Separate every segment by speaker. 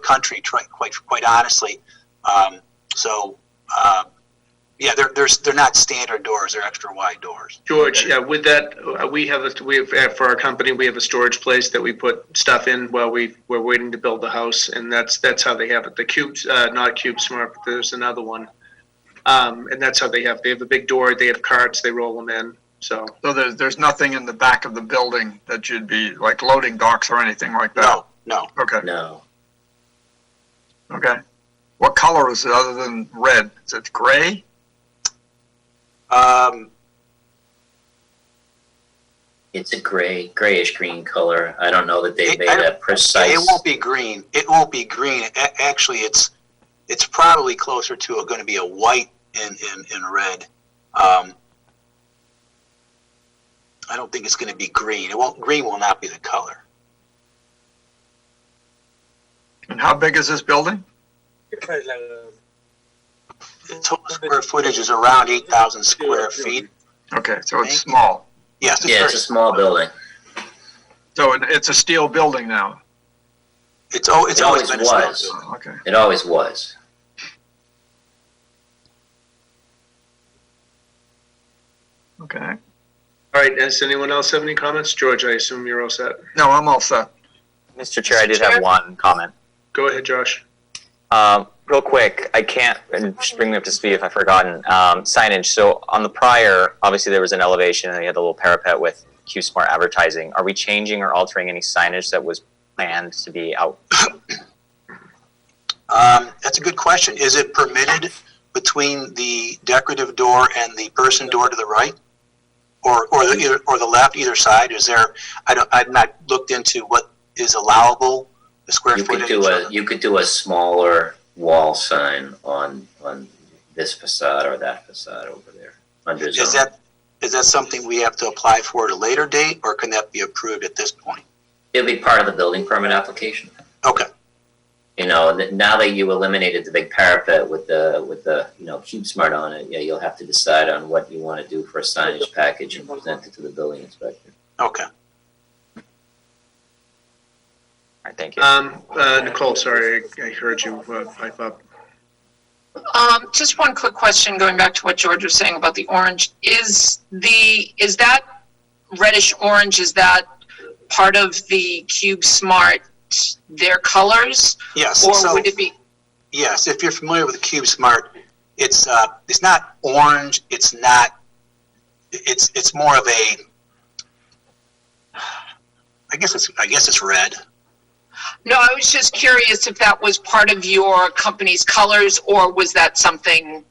Speaker 1: country, try- quite quite honestly. Um, so, uh, yeah, they're, they're, they're not standard doors, they're extra wide doors.
Speaker 2: George, yeah, with that, uh, we have, a- we have, uh, for our company, we have a storage place that we put stuff in while we, we're waiting to build the house, and that's, that's how they have it. The Cube, uh, not Cube Smart, but there's another one. Um, and that's how they have, they have a big door, they have carts, they roll them in, so.
Speaker 3: So there's, there's nothing in the back of the building that you'd be, like loading docks or anything like that?
Speaker 1: No, no.
Speaker 3: Okay,
Speaker 4: No.
Speaker 3: okay. What color is it other than red? Is it gray?
Speaker 1: Um,
Speaker 4: It's a gray, grayish green color. I don't know that they
Speaker 1: It-
Speaker 4: made
Speaker 1: I don't-
Speaker 4: a precise.
Speaker 1: It won't be green. It won't be green. A- actually, it's it's probably closer to going to be a white and and, and red. Um, I don't think it's going to be green. It won't. Green will not be the color.
Speaker 3: And how big is this building?
Speaker 1: The total square footage is around eight thousand square feet.
Speaker 3: Okay, so it's
Speaker 1: Thank you.
Speaker 3: small.
Speaker 1: Yes, it's,
Speaker 4: yeah, it's a
Speaker 1: very-
Speaker 4: small building.
Speaker 3: So it- it's a steel building now?
Speaker 1: it's, al- it's
Speaker 4: It
Speaker 1: always
Speaker 4: always
Speaker 1: been a small
Speaker 4: was.
Speaker 1: building.
Speaker 3: Oh, Okay.
Speaker 4: It always was.
Speaker 3: Okay.
Speaker 2: All right, does anyone else have any comments? George, I assume you're all set.
Speaker 3: No, I'm all set.
Speaker 5: Mr. Chair, I did have one comment.
Speaker 2: Go ahead, Josh.
Speaker 5: Um, real quick, I can't, and just bring me up to speed if I've forgotten, um, signage. So on the prior, obviously there was an elevation and you had the little parapet with Q Smart advertising. Are we changing or altering any signage that was planned to be out?
Speaker 1: Um, that's a good question. Is it permitted between the decorative door and the person door to the right? Or, or the, either- or the left, either side? Is there, I don't, I've not looked into what is allowable, the square
Speaker 4: You could
Speaker 1: footage.
Speaker 4: do
Speaker 1: of
Speaker 4: a
Speaker 1: it.
Speaker 4: you could do a smaller wall sign on on this facade or that facade over there under
Speaker 1: Is
Speaker 4: zone.
Speaker 1: that, is that something we have to apply for at a later date or can that be approved at this point?
Speaker 4: It'll be part of the building permit application.
Speaker 1: Okay,
Speaker 4: You know, and th- now that you eliminated the big parapet with the with the you know cube smart on it, yeah, you'll have to decide on what you want to do for a signage package and present it to the building inspector.
Speaker 1: okay.
Speaker 5: All right, thank you.
Speaker 2: Um, uh, Nicole, sorry, I, I heard you uh, pipe up.
Speaker 6: Um, just one quick question, going back to what George was saying about the orange. Is the, is that reddish orange, is that part of the Cube Smart, their colors?
Speaker 1: Yes.
Speaker 6: Or
Speaker 1: so-
Speaker 6: would it be,
Speaker 1: Yes, if you're familiar with Cube Smart, it's uh, it's not orange. It's not. It's it's more of a. I guess it's I guess it's red.
Speaker 6: no, I was just curious if that was part of your company's colors, or was that something,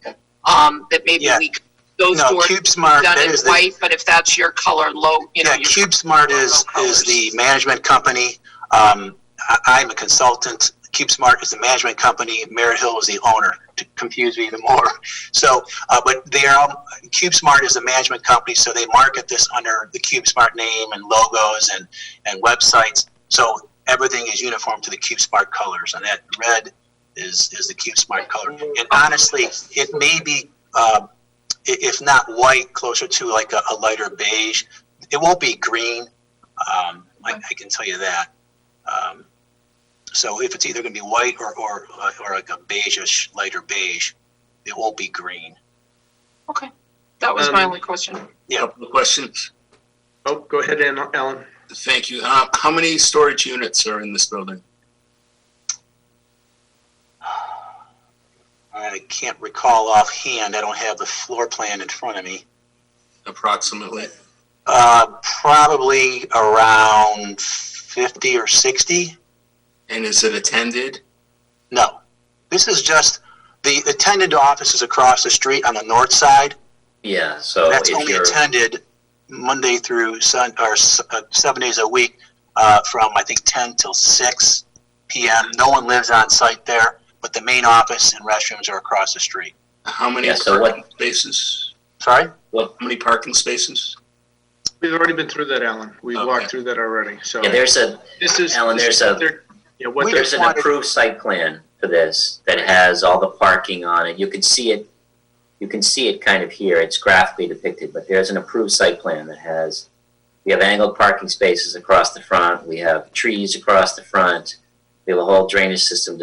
Speaker 6: um, that maybe
Speaker 1: Yeah.
Speaker 6: we, could- those
Speaker 1: No,
Speaker 6: doors
Speaker 1: Cube Smart.
Speaker 6: done
Speaker 1: That
Speaker 6: in
Speaker 1: is the,
Speaker 6: white, but if that's your color, low, you know,
Speaker 1: yeah.
Speaker 6: your
Speaker 1: Cube Smart is is the management company. Um, I, I'm a consultant. Cube Smart is the management company. Merritt Hill is the owner. To confuse me even more. So, uh, but they are all- Cube Smart is the management company, so they market this under the Cube Smart name and logos and and websites. So everything is uniform to the Cube Smart colors, and that red is is the Cube Smart color. And honestly, it may be. Uh, i- if not white, closer to like a, a lighter beige. It won't be green. Um, I, I can tell you that. Um, so if it's either going to be white or or uh, or like a beigeish, lighter beige, it won't be green.
Speaker 6: That was my
Speaker 2: Um,
Speaker 6: only question.
Speaker 7: Couple of questions.
Speaker 2: Oh, go ahead, Alan- Alan.
Speaker 7: Thank you. Uh, How many storage units are in this building?
Speaker 1: I can't recall offhand. I don't have the floor plan in front of me.
Speaker 7: Approximately.
Speaker 1: Uh, probably around fifty or sixty.
Speaker 7: And is it attended?
Speaker 1: No, this is just the attendant office is across the street on the north side.
Speaker 4: Yeah, so
Speaker 1: That's
Speaker 4: Oh, if
Speaker 1: only
Speaker 4: you're
Speaker 1: attended Monday through Sun, or s- uh, seven days a week, uh, from I think ten till six PM. No one lives on site there, but the main office and restrooms are across the street.
Speaker 7: How many
Speaker 4: Yeah, so what-
Speaker 7: parking spaces?
Speaker 1: Sorry?
Speaker 7: How many parking spaces?
Speaker 2: We've already been through that, Alan. We
Speaker 7: Okay.
Speaker 2: walked through that already, so.
Speaker 4: yeah, there's a
Speaker 2: This is.
Speaker 4: Alan,
Speaker 2: this is
Speaker 4: there's a-
Speaker 2: what they're- Yeah, what they're,
Speaker 4: there's an
Speaker 1: wanted-
Speaker 4: approved site plan for this that has all the parking on it. You can see it, you can see it kind of here. It's graphically depicted, but there's an approved site plan that has, we have angled parking spaces across the front. We have trees across the front. We have a whole drainage system